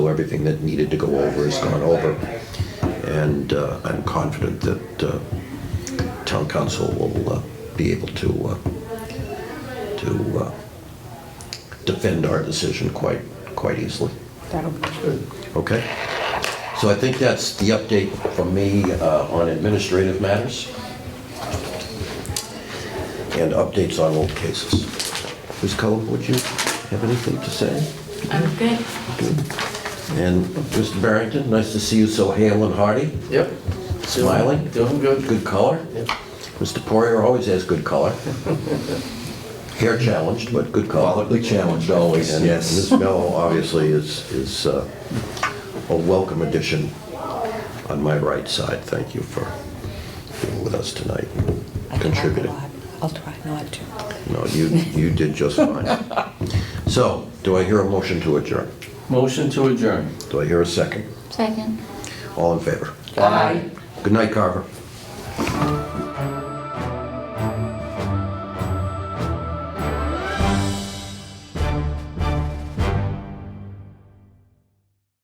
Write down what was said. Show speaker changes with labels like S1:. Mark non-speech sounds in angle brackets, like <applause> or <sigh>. S1: Everything that needed to go over is gone over. And uh, I'm confident that uh, town council will uh, be able to, uh, to uh, defend our decision quite, quite easily.
S2: That'll be
S1: Okay? So I think that's the update from me uh, on administrative matters and updates on old cases. Ms. Cullen, would you have anything to say?
S3: I'm good.
S1: And Mr. Barrington, nice to see you so hale and hearty,
S4: Yep.
S1: smiling.
S4: Doing good.
S1: Good color.
S4: Yep.
S1: Mr. Poirier always has good
S4: <laughs>
S1: color. Hair challenged, but good color.
S5: Politely challenged always,
S1: And
S5: yes.
S1: Ms. Mel obviously is, is uh, a welcome addition on my right side. Thank you for being with us tonight,
S2: I
S1: and
S2: can laugh a
S1: contributing.
S2: lot. I'll try not to.
S1: No, you, you did just fine. So, do I hear a motion to adjourn?
S4: Motion to adjourn.
S1: Do I hear a second?
S3: Second.
S1: All in favor?
S4: Aye.
S1: Good night, Carver.